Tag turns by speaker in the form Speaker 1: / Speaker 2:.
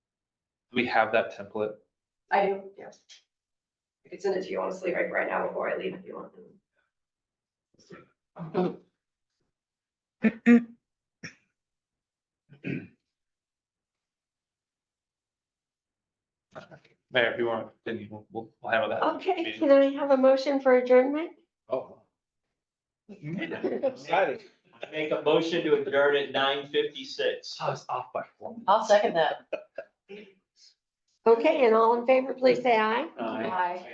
Speaker 1: Do we have that template?
Speaker 2: I do, yes. I could send it to you honestly right, right now before I leave if you want.
Speaker 1: Mayor, if you want, then you- we'll, we'll handle that.
Speaker 3: Okay, can I have a motion for adjournment?
Speaker 4: Oh.
Speaker 5: Make a motion to adjourn at nine fifty-six.
Speaker 1: I was off by one.
Speaker 6: I'll second that.
Speaker 3: Okay, and all in favor, please say aye.
Speaker 2: Bye.